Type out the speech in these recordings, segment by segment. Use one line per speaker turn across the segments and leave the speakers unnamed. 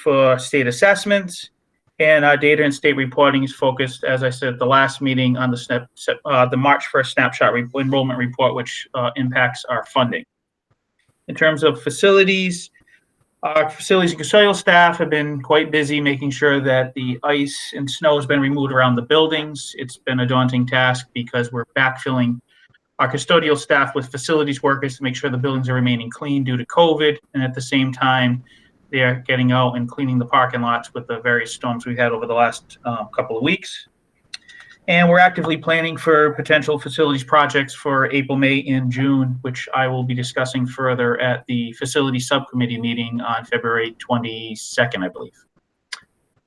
for state assessments. And our data and state reporting is focused, as I said, at the last meeting on the snap, sep- uh, the March 1st snapshot re- enrollment report, which uh, impacts our funding. In terms of facilities, our facilities and custodial staff have been quite busy making sure that the ice and snow has been removed around the buildings. It's been a daunting task because we're backfilling our custodial staff with facilities workers to make sure the buildings are remaining clean due to COVID. And at the same time, they're getting out and cleaning the parking lots with the various storms we've had over the last uh, couple of weeks. And we're actively planning for potential facilities projects for April, May, and June, which I will be discussing further at the facility subcommittee meeting on February 22nd, I believe.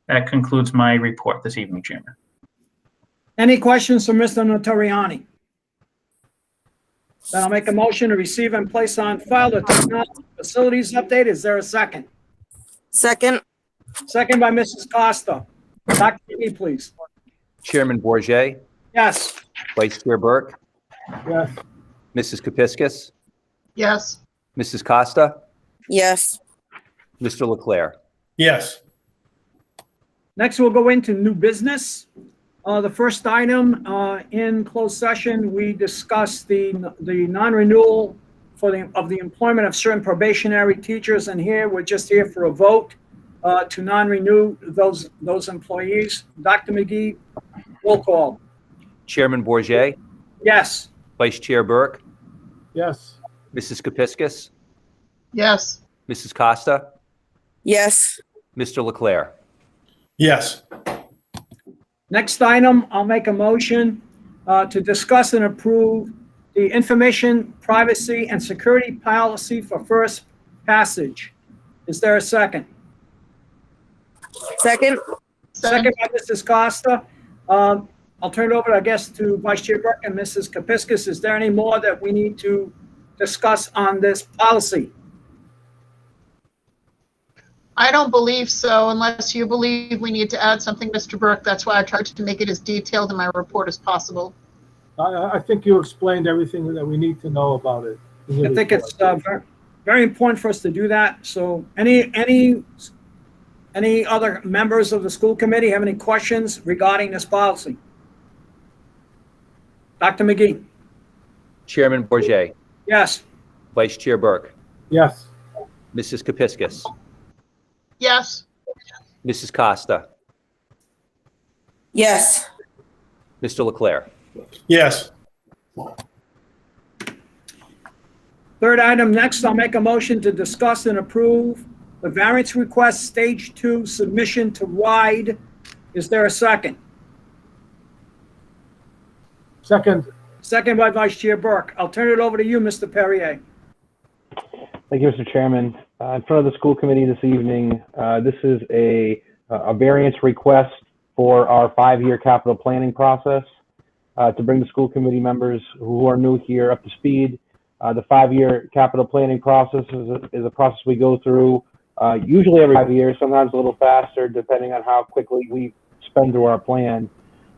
That concludes my report this evening, Chairman.
Any questions for Mr. Notoriani? Then I'll make a motion to receive and place on file the technology facilities update. Is there a second?
Second,
Second by Mrs. Costa. Dr. McGee, please.
Chairman Bourget,
Yes.
Vice Chair Burke,
Yes.
Mrs. Kepiscus,
Yes,
Mrs. Costa,
yes,
Mr. Leclerc.
Yes,
Next, we'll go into new business. Uh, The first item uh, in closed session, we discussed the, the non-renewal for the, of the employment of certain probationary teachers, and here, we're just here for a vote uh, to non-renew those, those employees. Dr. McGee, roll call.
Chairman Bourget,
Yes.
Vice Chair Burke. Yes. Mrs. Kepiscus,
yes,
Mrs. Costa,
yes,
Mr. Leclerc.
yes,
Next item, I'll make a motion uh, to discuss and approve the information privacy and security policy for first passage. Is there a second?
second,
Second by Mrs. Costa. Um, I'll turn it over, I guess, to Vice Chair Burke and Mrs. Kepiscus. Is there any more that we need to discuss on this policy?
I don't believe so unless you believe we need to add something, Mr. Burke. That's why I tried to make it as detailed in my report as possible.
I- I, I think you explained everything that we need to know about it.
I think it's uh, ver- very important for us to do that. So any, any, any other members of the school committee have any questions regarding this policy? Dr. McGee?
Chairman Bourget,
Yes.
Vice Chair Burke,
Yes,
Mrs. Kepiscus,
Yes,
Mrs. Costa,
yes,
Mr. Leclerc.
yes,
Third item, next, I'll make a motion to discuss and approve the variance request stage two submission to RIDE. Is there a second?
second,
Second by Vice Chair Burke. I'll turn it over to you, Mr. Perrier.
Thank you, Mr. Chairman. Uh, In front of the school committee this evening, uh, this is a a variance request for our five-year capital planning process uh, to bring the school committee members who are new here up to speed. Uh, The five-year capital planning process is a- is a process we go through uh, usually every five years, sometimes a little faster, depending on how quickly we spend through our plan.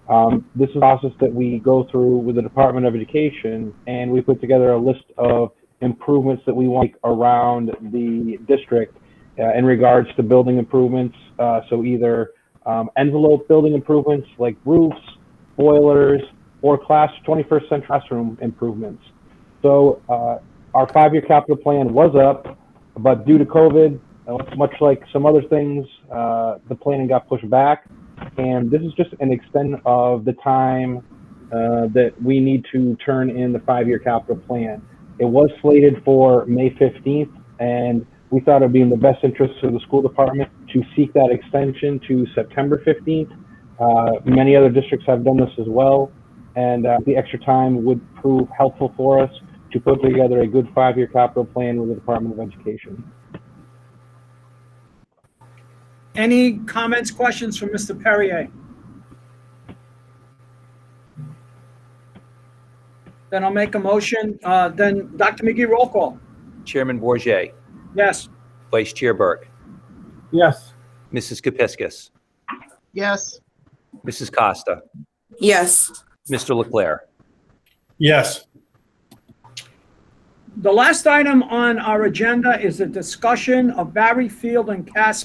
Um, This is a process that we go through with the Department of Education, and we put together a list of improvements that we want to make around the district uh, in regards to building improvements. Uh, so either um, envelope building improvements like roofs, boilers, or class 21st century classroom improvements. So uh, our five-year capital plan was up, but due to COVID, uh, much like some other things, uh, the planning got pushed back. And this is just an extent of the time uh, that we need to turn in the five-year capital plan. It was slated for May 15th, and we thought it'd be in the best interest of the school department to seek that extension to September 15th. Uh, many other districts have done this as well, and uh, the extra time would prove helpful for us to put together a good five-year capital plan with the Department of Education.
Any comments, questions from Mr. Perrier? Then I'll make a motion, uh, then Dr. McGee, roll call.
Chairman Bourget,
Yes.
Vice Chair Burke,
yes,
Mrs. Kepiscus,
yes,
Mrs. Costa,
yes,
Mr. Leclerc.
yes,
The last item on our agenda is a discussion of Barry Field and Cass